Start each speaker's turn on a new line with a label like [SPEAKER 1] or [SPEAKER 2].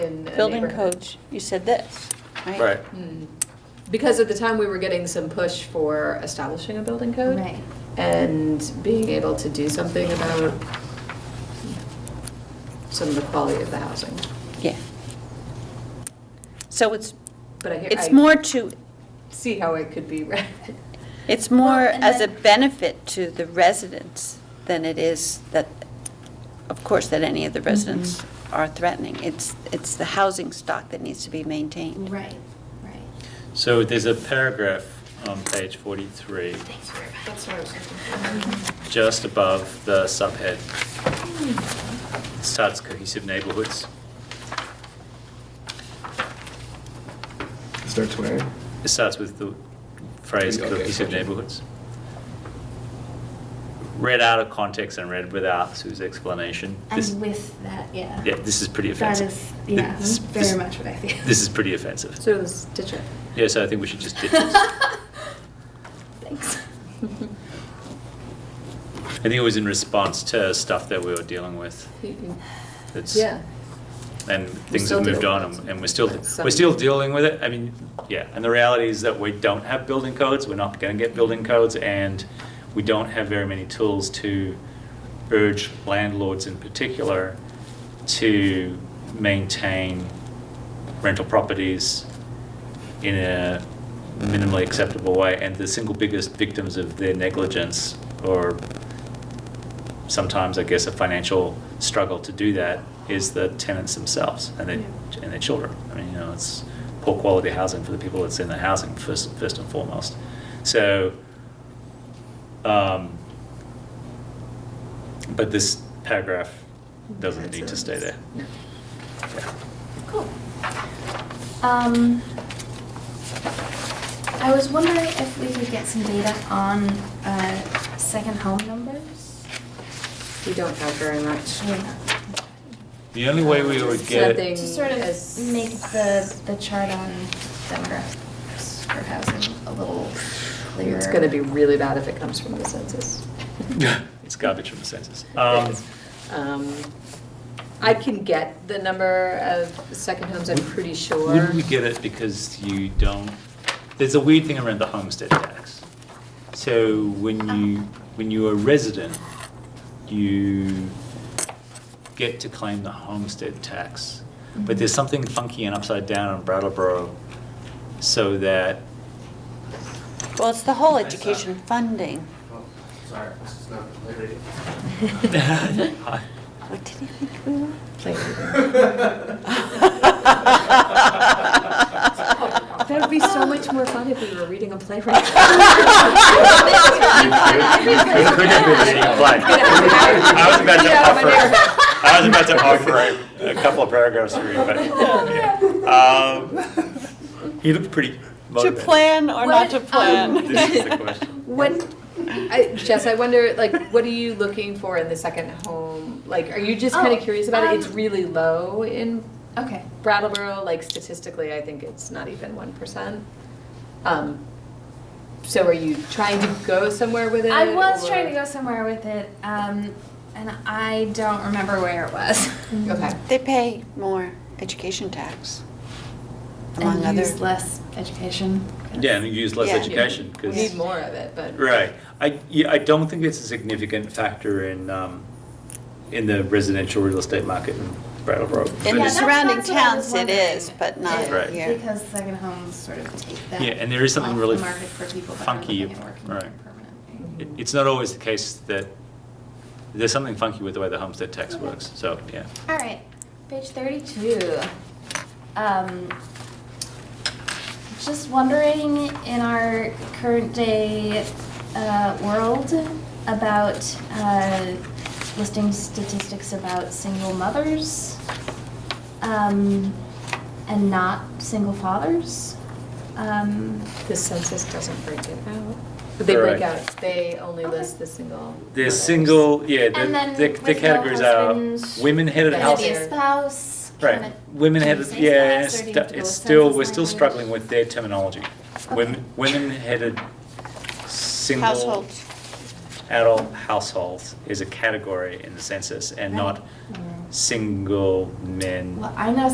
[SPEAKER 1] in a
[SPEAKER 2] Building
[SPEAKER 1] neighborhood.
[SPEAKER 2] codes, you said this, right?
[SPEAKER 3] Right.
[SPEAKER 1] Mm. Because at the time, we were getting some push for establishing a building code.
[SPEAKER 4] Right.
[SPEAKER 1] And being able to do something about some of the quality of the housing.
[SPEAKER 2] Yeah. So it's,
[SPEAKER 1] But I hear- I
[SPEAKER 2] it's more to,
[SPEAKER 1] See how it could be read.
[SPEAKER 2] it's more
[SPEAKER 4] Well, and
[SPEAKER 2] as a
[SPEAKER 4] then-
[SPEAKER 2] benefit to the residents than it is that, of course, that any
[SPEAKER 1] Mm-hmm.
[SPEAKER 2] of the residents are threatening. It's, it's the housing stock that needs to be maintained.
[SPEAKER 4] Right, right.
[SPEAKER 3] So there's a paragraph on page 43,
[SPEAKER 1] That's what I was thinking.
[SPEAKER 3] just above the subhead. It Starts cohesive neighborhoods.
[SPEAKER 5] Start swearing.
[SPEAKER 3] It starts with the phrase
[SPEAKER 5] Okay,
[SPEAKER 3] cohesive
[SPEAKER 5] gotcha.
[SPEAKER 3] neighborhoods. Read out of context and read without Sue's explanation. This-
[SPEAKER 4] And with that, yeah.
[SPEAKER 3] Yeah, this is pretty
[SPEAKER 4] That
[SPEAKER 3] offensive.
[SPEAKER 4] is, yeah,
[SPEAKER 3] This- this-
[SPEAKER 4] very much what I feel.
[SPEAKER 3] This is pretty offensive.
[SPEAKER 1] So let's ditch it.
[SPEAKER 3] Yeah, so I think we should just ditch this.
[SPEAKER 4] Thanks.
[SPEAKER 3] I think it was in response to stuff that we were dealing with. That's-
[SPEAKER 1] Yeah.
[SPEAKER 3] and things
[SPEAKER 1] still
[SPEAKER 3] have moved
[SPEAKER 1] dealing
[SPEAKER 3] on,
[SPEAKER 1] with
[SPEAKER 3] and-
[SPEAKER 1] it.
[SPEAKER 3] and we're still,
[SPEAKER 1] Some-
[SPEAKER 3] we're still dealing with it. I mean, yeah, and the reality is that we don't have building codes, we're not gonna get building codes, and we don't have very many tools to urge landlords in particular to maintain rental properties in a minimally acceptable way. And the single biggest victims of their negligence or sometimes I guess a financial struggle to do that is the tenants themselves and their, and their children. I mean, you know, it's poor quality housing for the people that's in the housing first, first and foremost. So, um, but this paragraph doesn't need to stay there.
[SPEAKER 1] No.
[SPEAKER 3] Yeah.
[SPEAKER 4] Cool. Um, I was wondering if we could get some data on uh, second home numbers.
[SPEAKER 1] We don't have very much.
[SPEAKER 3] The only way we would
[SPEAKER 1] Just
[SPEAKER 3] get
[SPEAKER 1] nothing.
[SPEAKER 4] To sort of
[SPEAKER 1] As-
[SPEAKER 4] make the, the chart on demographics for housing a little clearer.
[SPEAKER 1] It's gonna be really bad if it comes from the census.
[SPEAKER 3] it's garbage from the census. Um,
[SPEAKER 1] Um, I can get the number of second homes, I'm pretty sure.
[SPEAKER 3] Wouldn't we get it because you don't, there's a weird thing around the homestead tax. So when you, when you're a resident, you get to claim the homestead tax. But there's something funky and upside down in Brattleboro so that,
[SPEAKER 2] Well, it's the whole
[SPEAKER 6] Nice, uh,
[SPEAKER 2] education funding.
[SPEAKER 6] Oh, Sorry, this is not related.
[SPEAKER 2] What did you think we were?
[SPEAKER 1] That would be so much more fun if we were reading a play right
[SPEAKER 3] It could have been reading a play. I was about to offer, I was about to offer a couple of paragraphs to read, but, yeah. Um, He looked pretty
[SPEAKER 2] To
[SPEAKER 3] motivated.
[SPEAKER 2] plan or not to
[SPEAKER 1] What, um,
[SPEAKER 3] This is the
[SPEAKER 2] plan?
[SPEAKER 3] question.
[SPEAKER 1] What, I, Jess, I wonder, like, what are you looking for in the second home? Like, are you just kind
[SPEAKER 4] Oh,
[SPEAKER 1] of curious about it? It's
[SPEAKER 4] um,
[SPEAKER 1] really low in
[SPEAKER 4] Okay.
[SPEAKER 1] Brattleboro, like statistically, I think it's not even one percent. Um, so are you trying to go somewhere with it?
[SPEAKER 4] I was
[SPEAKER 1] or-
[SPEAKER 4] trying to go somewhere with it, um, and I don't remember where it was.
[SPEAKER 1] Okay,
[SPEAKER 2] They pay more education tax, among
[SPEAKER 4] And
[SPEAKER 2] other.
[SPEAKER 4] use less education. 'cause-
[SPEAKER 3] Yeah, and use less
[SPEAKER 2] Yeah.
[SPEAKER 3] education,
[SPEAKER 1] we need
[SPEAKER 3] because,
[SPEAKER 1] more of it, but.
[SPEAKER 3] right, I, yeah, I don't think it's a significant factor in, um, in the residential real estate market in Brattleboro.
[SPEAKER 2] In the
[SPEAKER 3] But
[SPEAKER 4] Yeah,
[SPEAKER 3] it's-
[SPEAKER 4] that's-
[SPEAKER 2] surrounding
[SPEAKER 4] that's what I was
[SPEAKER 2] towns, it is,
[SPEAKER 4] wondering.
[SPEAKER 2] but not
[SPEAKER 3] Right.
[SPEAKER 2] here.
[SPEAKER 4] Because second homes sort of take that.
[SPEAKER 3] Yeah, and there is something
[SPEAKER 4] off
[SPEAKER 3] really
[SPEAKER 4] the market for people that are
[SPEAKER 3] funky,
[SPEAKER 4] living and working there
[SPEAKER 3] right.
[SPEAKER 4] permanently.
[SPEAKER 3] it- It's not always the case that, there's something funky with the way the homestead tax works, so, yeah.
[SPEAKER 4] All right, page thirty-two. Um, just wondering in our current day uh, world about uh, listing statistics about single mothers um, and not single fathers. Um,
[SPEAKER 1] The census doesn't break it out. But they break
[SPEAKER 3] Right.
[SPEAKER 1] out, they only
[SPEAKER 4] Okay.
[SPEAKER 1] list the single.
[SPEAKER 3] The
[SPEAKER 1] mothers.
[SPEAKER 3] single, yeah,
[SPEAKER 4] And then
[SPEAKER 3] the, the-
[SPEAKER 4] with
[SPEAKER 3] the
[SPEAKER 4] no
[SPEAKER 3] categories are
[SPEAKER 4] husband,
[SPEAKER 3] women-headed
[SPEAKER 1] Right.
[SPEAKER 4] can it
[SPEAKER 3] houses.
[SPEAKER 4] be a spouse? Can
[SPEAKER 3] Right,
[SPEAKER 4] it-
[SPEAKER 3] women
[SPEAKER 4] do you
[SPEAKER 3] headed,
[SPEAKER 4] say
[SPEAKER 3] yeah,
[SPEAKER 4] spouse, or do you
[SPEAKER 3] stu-
[SPEAKER 4] have to
[SPEAKER 3] it's
[SPEAKER 4] go with
[SPEAKER 3] still,
[SPEAKER 4] census
[SPEAKER 3] we're still
[SPEAKER 4] language?
[SPEAKER 3] struggling with their terminology.
[SPEAKER 4] Okay.
[SPEAKER 3] Women, women headed single.
[SPEAKER 2] Households.
[SPEAKER 3] Adult households is a category in the census and
[SPEAKER 4] Right.
[SPEAKER 3] not single men.
[SPEAKER 4] Well, I know